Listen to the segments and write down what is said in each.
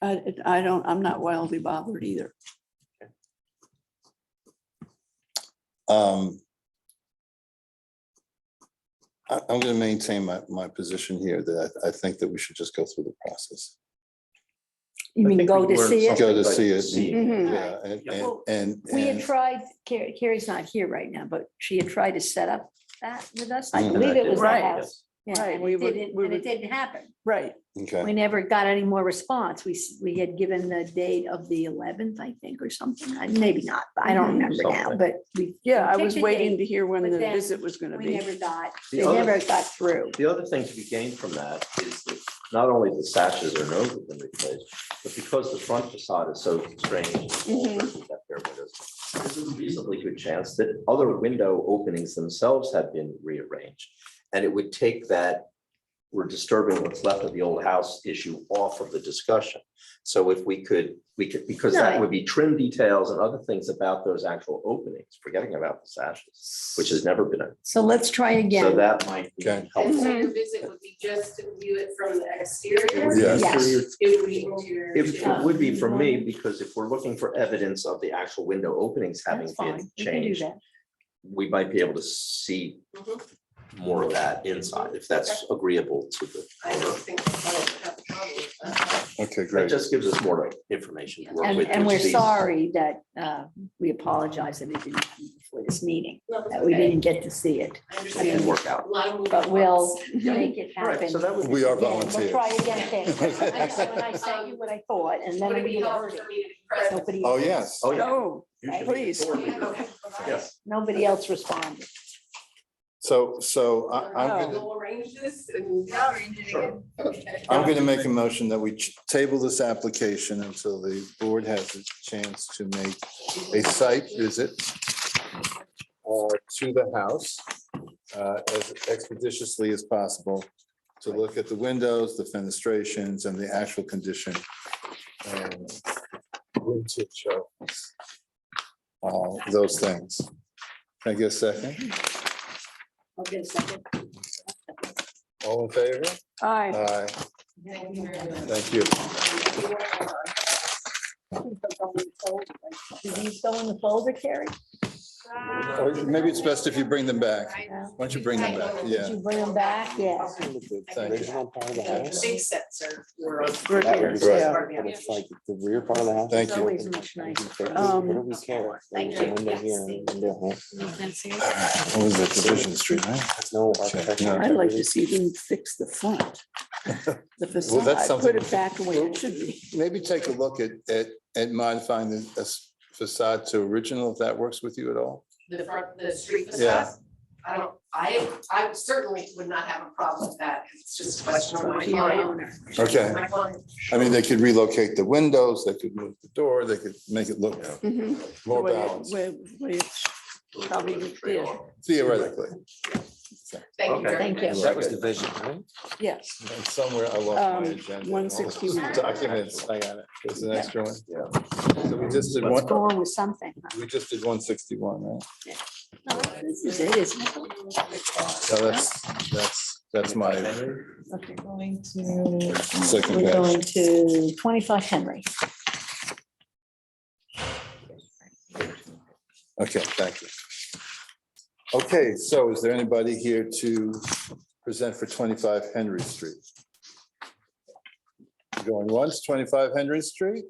I, I don't, I'm not wildly bothered either. Um. I, I'm gonna maintain my, my position here that I, I think that we should just go through the process. You I mean think go we to learned see it? something Go to by see it. seeing Mhm. Yeah, and, Yeah. and, and. We had and- tried, Carrie, Carrie's not here right now, but she had tried to set up that with us. I Mm-hmm. Mhm. believe Mm-hmm. it was the Right. house. Yeah, Right, and we it were- didn't, we and it were- didn't happen. Right. Okay, We never got any more response. We, s- we had given the date of the eleventh, I think, or something. I- Maybe not, but I don't remember now, Something. but we. Yeah, I picked was a waiting date, to hear when but the then visit was gonna We be. never got, The they other- never got through. The other thing to be gained from that is that not only the sashes or nose have been replaced, but because the front facade is so strange. Mhm. with that pair of windows, There's a reasonably good chance that other window openings themselves have been rearranged. And it would take that, we're disturbing what's left of the old house issue off of the discussion. So if we could, we could, because that Right. would be trim details and other things about those actual openings, forgetting about the sashes, which has never been. a- So let's try So again. that might be Okay. And helpful. so your visit would be just to view it from the exterior? Yes. Yes. It would be interior. It too. it would be for me, because if we're looking for evidence of the actual window openings having That's been fine. We can do changed, that. we might be able to see Mhm. more of that inside, if that's agreeable to the. I don't owner. think the client would have a problem uh, with that. okay, That great. just gives us more like, information to work And, with. and which we're these- sorry that uh, we apologize that it didn't come before this meeting, No, it's that we okay. didn't get to see it, I Can understand. work A out. lot of moving but we'll parts. make it All right, happen. so that would. be- We are Yeah, We'll volunteers. try again, Kate. I said when I sent you what I thought, and then Would it I'm be gonna helpful hurt for me to be present? Nobody. Oh, yes. Oh, yeah. Oh, you should please. authority. Okay. Yes. Nobody else responded. So, so I, I'm gonna, We'll arrange this and. Yeah, arrange it again. Okay. I'm gonna make a motion that we ch- table this application until the board has a chance to make a site visit uh, to the house uh, as expeditiously as possible to look at the windows, the fenestrations, and the actual condition. and vintage of, uh, Those things. Can I get a second? I'll get a second. All in favor? aye. Aye, Thank you very much. thank you. Do these go in the folder, Carrie? Or Maybe it's best if you bring them back. I- Why don't you bring them back? Did Yeah. you bring them back? Yeah. Thank you. original part of the The house. big sets are. were- We're That here, would be Right. yeah. But it's like the rear part of the house. Thank is you. Always open. much You nicer. can take it, Um, What do we care? Thank There's a you. window here Yes. and a window here. What was that, Division Street, right? It's no architecture. No. I'd like to see them fix the front. The facade, something- put it back the way it should be. Maybe take a look at, at, at modifying the uh, facade to original, if that works with you at all. the front, the street Yeah. facade. I don't, I, I certainly would not have a problem with that. It's just a question of my Your client. owner. Okay, My client. I mean, they could relocate the windows, they could move the door, they could make it look Mhm. The more way it- balanced way- way it's- Probably would be it. theoretically. Thank you very Thank much. you. That was the vision, right? Yes, And somewhere I lost my Um, agenda. 161. Documents, I got it. There's an extra one. Yeah. So we just did Let's one, go on with something. we just did one sixty-one, right? No, This is it, isn't it? So that's, that's, that's my Okay, going to, second we're page. going to twenty-five Henry. Okay, thank you. Okay, so is there anybody here to present for 25 Henry Street? Going once, 25 Henry Street,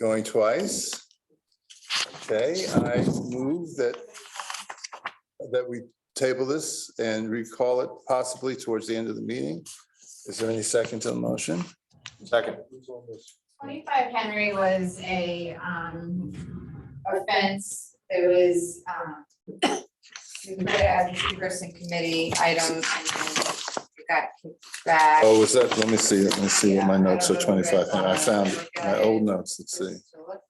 going twice? Okay, I move that, that we table this and recall it possibly towards the end of the meeting. Is there any second to the motion? Second. Twenty-five Henry was a um offense. It was um. We put it as a person committee item and then it got kicked back. Oh, was that, let me see, let me see what my Yeah, I notes are, don't know where it's 25 Henry. I found on. my old notes, let's see. Just to look.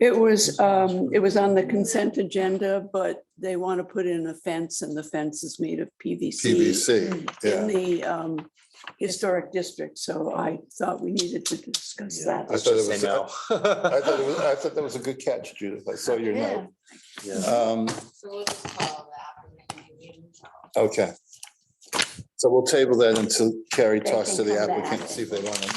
it was, um, it was on the consent agenda, but they want to put in a fence and the fence is made of PVC PVC, in yeah. the um, historic district, so I thought we needed to discuss that. I thought it was, I thought it was, I thought that was a good catch, Judith. I saw your note. Um, So we'll just call that. okay. So we'll table that until Carrie They talks to can the come back. applicant, see if they want to